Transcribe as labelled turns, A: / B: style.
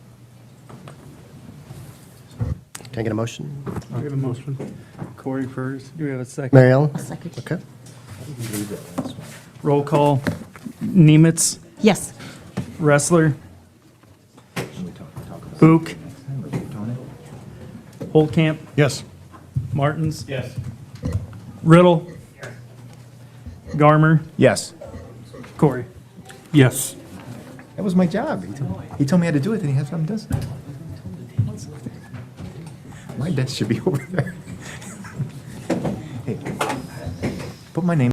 A: Can I get a motion?
B: We have a motion. Corey first. Do we have a second?
A: Mary Ellen?
C: I'll second.
A: Okay.
B: Roll call. Nemitz,
C: Yes.
B: Wrestler. Book. Holtcamp.
D: Yes.
B: Martins. Yes. Riddle. Garmer.
D: Yes.
B: Corey.
E: Yes.
D: That was my job. He told, he told me how to do it, then he had something does. My desk should be over there. Hey, Put my name.